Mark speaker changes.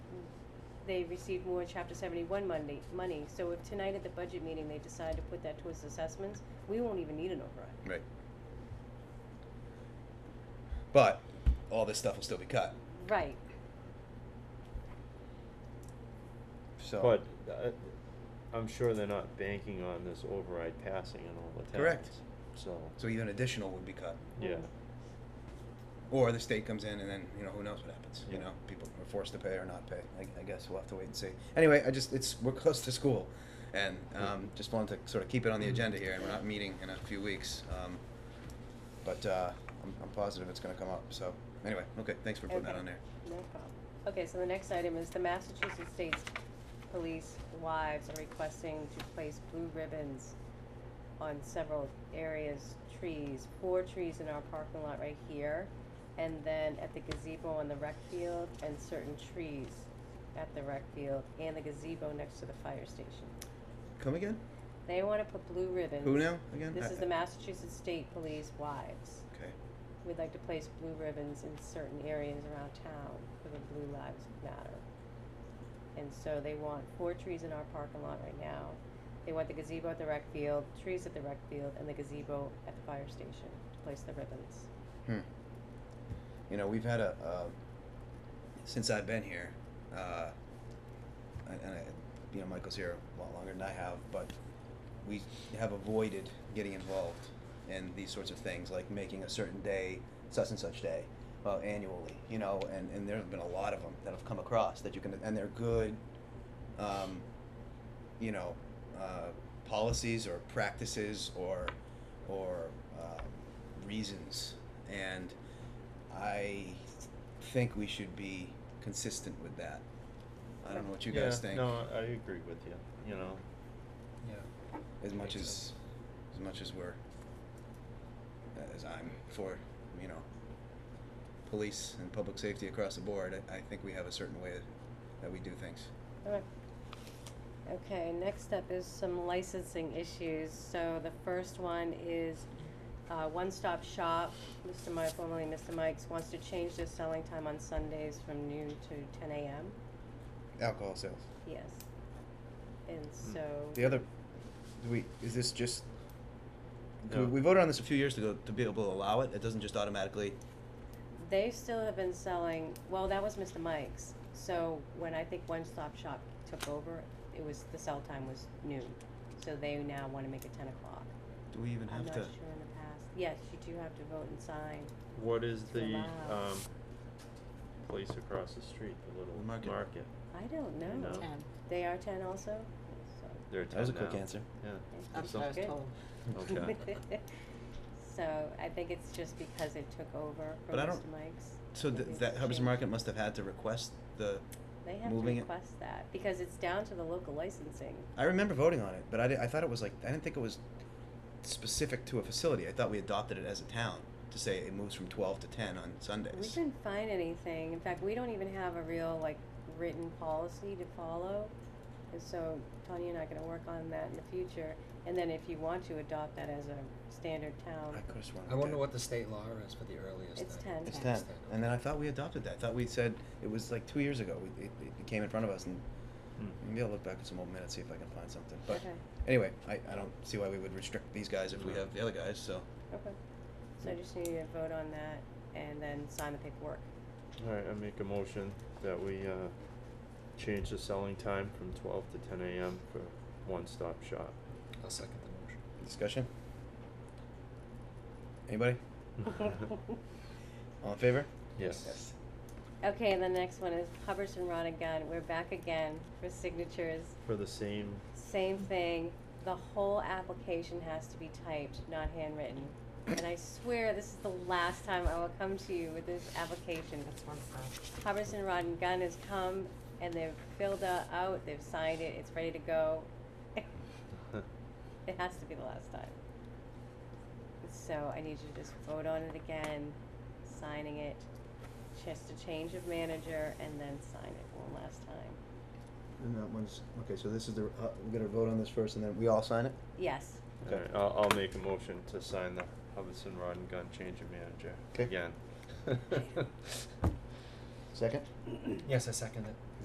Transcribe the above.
Speaker 1: they received more chapter seventy-one money, money, so if tonight at the budget meeting, they decide to put that towards assessments, we won't even need an override.
Speaker 2: Right. But all this stuff will still be cut.
Speaker 1: Right,
Speaker 2: So
Speaker 3: But, uh, I'm sure they're not banking on this override passing in all the towns.
Speaker 2: Correct.
Speaker 3: So,
Speaker 2: so even additional would be cut.
Speaker 3: yeah,
Speaker 2: Or the state comes in and then, you know, who knows what happens, you
Speaker 3: Yeah.
Speaker 2: know, people are forced to pay or not pay, I, I guess we'll have to wait and see. Anyway, I just, it's, we're close to school, and, um, just wanted to sort of keep it on the agenda here, and we're not meeting in a few weeks, um, but, uh, I'm, I'm positive it's gonna come up, so, anyway, okay, thanks for putting that
Speaker 1: Okay.
Speaker 2: on there.
Speaker 1: no problem. Okay, so the next item is the Massachusetts State Police wives are requesting to place blue ribbons on several areas, trees, four trees in our parking lot right here, and then at the gazebo on the rec field, and certain trees at the rec field, and the gazebo next to the fire station.
Speaker 2: Come again?
Speaker 1: They wanna put blue ribbons.
Speaker 2: Who now, again?
Speaker 1: This
Speaker 2: I-
Speaker 1: is the Massachusetts State Police wives.
Speaker 2: Okay,
Speaker 1: We'd like to place blue ribbons in certain areas around town for the Blue Lives Matter. And so they want four trees in our parking lot right now. They want the gazebo at the rec field, trees at the rec field, and the gazebo at the fire station to place the ribbons.
Speaker 2: hmm. You know, we've had a, uh, since I've been here, uh, and, and I, you know, Michael's here a lot longer than I have, but we have avoided getting involved in these sorts of things, like making a certain day such and such day uh, annually, you know, and, and there have been a lot of them that have come across that you can, and they're good, um, you know, uh, policies or practices or, or um, reasons. And I think we should be consistent with that. I don't know what you guys
Speaker 3: Yeah,
Speaker 2: think.
Speaker 3: No, I I agree with you, you know,
Speaker 4: Yeah.
Speaker 2: as much
Speaker 4: Makes
Speaker 2: as
Speaker 4: sense.
Speaker 2: as much as we're uh, as I'm for you know police and public safety across the board I, I think we have a certain way that we do things
Speaker 1: Alright. Okay, next up is some licensing issues. So the first one is uh, One Stop Shop. Mr. Mike, formerly Mr. Mike's, wants to change their selling time on Sundays from noon to ten AM.
Speaker 2: alcohol sales
Speaker 1: Yes. And
Speaker 3: Hmm.
Speaker 1: so.
Speaker 2: the other do we is this just
Speaker 3: No.
Speaker 2: we voted on this a few years ago to be able to allow it it doesn't just automatically
Speaker 1: They still have been selling, well, that was Mr. Mike's. So when I think One Stop Shop took over, it was, the sell time was noon. So they now wanna make it ten o'clock.
Speaker 2: do we even
Speaker 1: I'm
Speaker 2: have
Speaker 1: not
Speaker 2: to
Speaker 1: sure in the past. Yes, you do have to vote and sign.
Speaker 3: what is
Speaker 1: It's
Speaker 3: the,
Speaker 1: allowed.
Speaker 3: um, place across the street, the little
Speaker 2: The market.
Speaker 3: market?
Speaker 1: I don't
Speaker 3: I
Speaker 1: know.
Speaker 3: know.
Speaker 5: Ten.
Speaker 1: They are ten also? So,
Speaker 3: They're
Speaker 2: That was a
Speaker 3: ten
Speaker 2: quick
Speaker 3: now.
Speaker 2: answer.
Speaker 3: Yeah,
Speaker 1: okay.
Speaker 5: That's what I was
Speaker 1: Good.
Speaker 5: told.
Speaker 3: okay.
Speaker 1: So I think it's just because it took over from
Speaker 2: But I
Speaker 1: Mr.
Speaker 2: don't-
Speaker 1: Mike's.
Speaker 2: so
Speaker 1: that
Speaker 2: th-
Speaker 1: they've
Speaker 2: that Hubbard's
Speaker 1: changed.
Speaker 2: market must have had to request the
Speaker 1: They have to
Speaker 2: moving it-
Speaker 1: request that, because it's down to the local licensing.
Speaker 2: I remember voting on it, but I, di- I thought it was like I didn't think it was specific to a facility. I thought we adopted it as a town to say it moves from twelve to ten on Sundays.
Speaker 1: We couldn't find anything. In fact, we don't even have a real like written policy to follow. And so Tanya and I are gonna work on that in the future. And then if you want to adopt that as a standard
Speaker 2: I
Speaker 1: town,
Speaker 2: could have sworn.
Speaker 4: I
Speaker 2: we
Speaker 4: wonder
Speaker 2: did.
Speaker 4: what the state law is for the earliest.
Speaker 1: It's
Speaker 4: thing.
Speaker 1: 10.
Speaker 2: It's
Speaker 5: It's
Speaker 2: ten,
Speaker 4: ten.
Speaker 2: and then I thought we adopted that. I thought we said it was like two years ago. We, it, it came in front of us, and
Speaker 3: Hmm.
Speaker 2: maybe I'll look back at some old minutes see if I can find something. But
Speaker 1: Okay.
Speaker 2: anyway, I, I don't see why we would restrict these guys if we
Speaker 3: No.
Speaker 2: have the other guys. So
Speaker 1: okay. So I just need you to vote on that and then sign the paperwork.
Speaker 3: Alright, I make a motion that we, uh, change the selling time from twelve to ten AM for One Stop Shop.
Speaker 4: I'll second the motion.
Speaker 2: discussion. Anybody? All in favor?
Speaker 3: Yes.
Speaker 2: Yes.
Speaker 1: Okay, and the next one is Hubbard's and Rod and Gun. We're back again for signatures.
Speaker 3: For the same,
Speaker 1: Same thing. The whole application has to be typed, not handwritten. And I swear this is the last time I will come to you with this application.
Speaker 5: That's one side.
Speaker 1: Hubbardson Rod and Gun has come and they've filled it out, they've signed it, it's ready to go. It has to be the last time. So I need you to just vote on it again, signing it, just a change of manager, and then sign it one last time.
Speaker 2: And that one's okay. So this is the uh, we're gonna vote on this first, and then we all sign it.
Speaker 1: Yes.
Speaker 2: Okay.
Speaker 3: alright, I'll, I'll make a motion to sign the Hubbardson Rod and Gun Change of Manager
Speaker 2: 'Kay.
Speaker 3: again.
Speaker 2: Second.
Speaker 4: Yes, I second it.